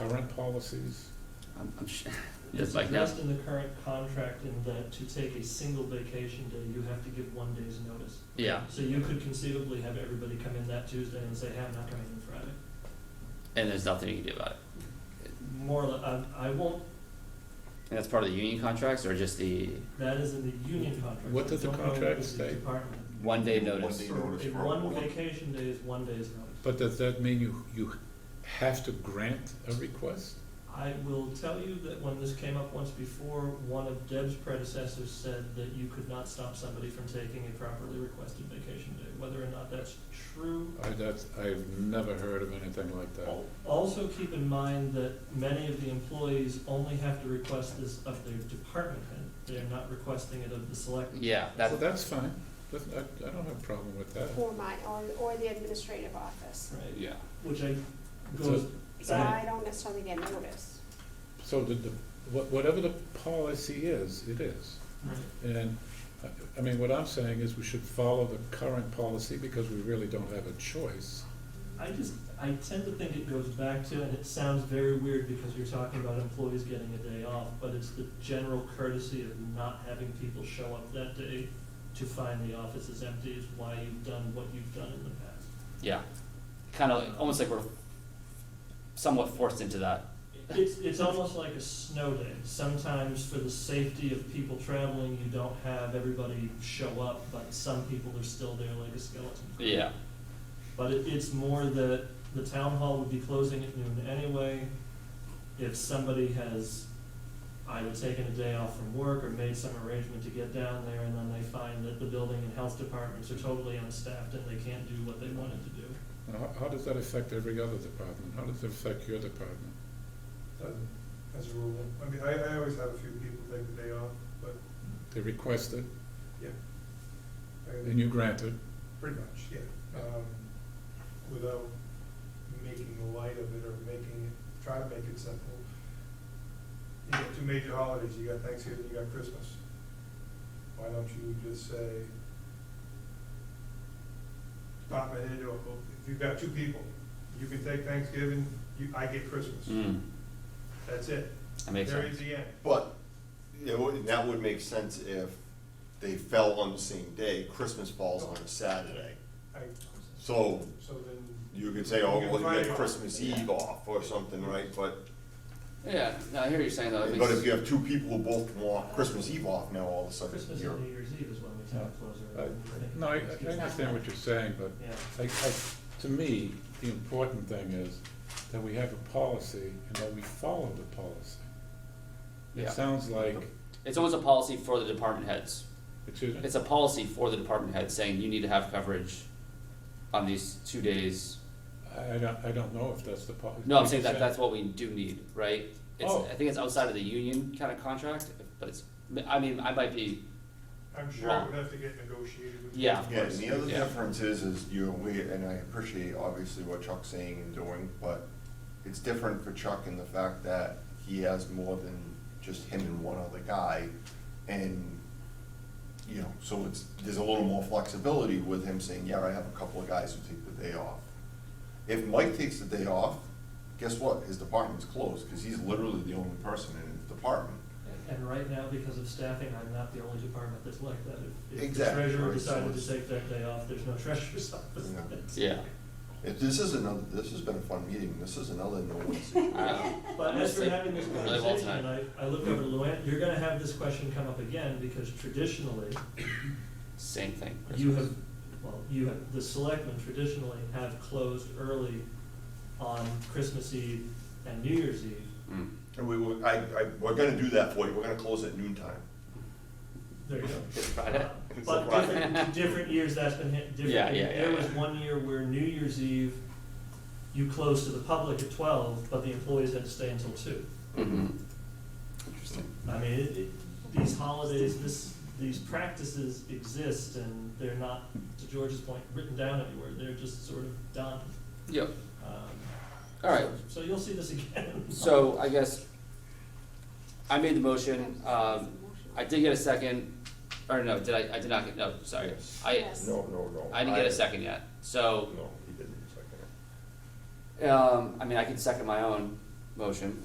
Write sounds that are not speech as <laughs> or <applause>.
policies. I'm, I'm sh- <laughs> It's just like now. addressed in the current contract in that to take a single vacation day, you have to give one day's notice. Yeah, So you could conceivably have everybody come in that Tuesday and say, hey, I'm not coming in Friday. and there's nothing you can do about it. More, li- I, I won't, And that's part of the union contracts or just the that is in the union contract. What I does the don't know what contract is the say? Department. one day notice? One day notice A for a one warning. vacation day is one day's notice. But does that mean you, you have to grant a request? I will tell you that when this came up once before, one of Deb's predecessors said that you could not stop somebody from taking a properly requested vacation day. Whether or not that's true, I, that's, I've never heard of anything like that. al- also keep in mind that many of the employees only have to request this of their department head. They're not requesting it of the select. Yeah, Well, that, that's fine, That's- I, I don't have a problem with that. Or my, or, or the administrative office, Right, Yeah. which I It's goes so back, I don't necessarily get notice. So the, the, wha- whatever the policy is, it is. right, And, I- I mean, what I'm saying is we should follow the current policy because we really don't have a choice. I just, I tend to think it goes back to, and it sounds very weird because you're talking about employees getting a day off, but it's the general courtesy of not having people show up that day to find the office is empty is why you've done what you've done in the past. yeah, kind of almost like we're somewhat forced into that. It's, it's almost like a snow day. Sometimes for the safety of people traveling, you don't have everybody show up, but some people are still there like a skeleton. Yeah, But it, it's more that the town hall would be closing at noon anyway. If somebody has either taken a day off from work or made some arrangement to get down there and then they find that the building and health departments are totally unstaffed and they can't do what they wanted to do. And how, how does that affect every other department? How does it affect your department? Doesn't, as a rule. I mean, I, I always have a few people take the day off, but They request it, I, and you grant it. pretty much, yeah. Um, without making light of it or making it, try to make it simple. You got two major holidays, you got Thanksgiving, you got Christmas. Why don't you just say, department head, or if you've got two people, you can take Thanksgiving, you, I get Christmas. mm, That's it. that makes There sense. is the end. But, it would, that would make sense if they fell on the same day, Christmas falls on a Saturday. I, So, so then you could say, oh, well, you Right. got Christmas Eve off or something, right, but, Yeah, no, I hear what you're saying though. It but if makes, you have two people who both want Christmas Eve off now, all of a sudden, Christmas you're. and New Year's Eve is when the town closes. I- No, I, I understand what you're saying, but Yeah. I, I, to me, the important thing is that we have a policy and that we follow the policy. It Yeah. sounds like, it's almost a policy for the department heads. excuse me? It's a policy for the department head saying you need to have coverage on these two days. I I don't, I don't know if that's the policy. No, I'm saying that that's what we do need, right? It's, Oh. I think it's outside of the union kind of contract, but it's, I mean, I might be, I'm sure it would have to get negotiated with. Yeah. Yeah, and the other Yeah. difference is, is you're aware, and I appreciate obviously what Chuck's saying and doing, but it's different for Chuck in the fact that he has more than just him and one other guy, and, you know, so it's, there's a little more flexibility with him saying, yeah, I have a couple of guys who take the day off. If Mike takes the day off, guess what, his department's closed, because he's literally the only person in his department. And right now, because of staffing, I'm not the only department that's like that. If- If the Exactly, treasurer right, so decided to it's- take that day off, there's no treasurer's <laughs> office. Yeah. That's- yeah. If, this is another, this has been a fun meeting, this is another no-win <laughs> situation. I- But as honestly, we're having this really well conversation, tonight. and I, I look over to Luann, you're gonna have this question come up again, because traditionally, Same thing. you have, well, you have, the selectmen traditionally have closed early on Christmas Eve and New Year's Eve. Mm. And we, will- I, I, we're gonna do that for you, we're gonna close at noon time. There you go. It's Friday. It's But a Friday. different, different years, that's been hit, Yeah, different, yeah, yeah, there was yeah. one year where New Year's Eve, you closed to the public at twelve, but the employees had to stay until two. Mhm. Interesting. I mean, it, it, these holidays, this, these practices exist and they're not, to George's point, written down anywhere, they're just sort of done. Yep. Um, All right. So so you'll see this again. So I guess I made the motion. Um, I did get a second. Or no, did I? I did not get. No, sorry. I Yes. No, no, no. I didn't get a second yet. So No, he didn't second it. um, I mean, I can second my own motion.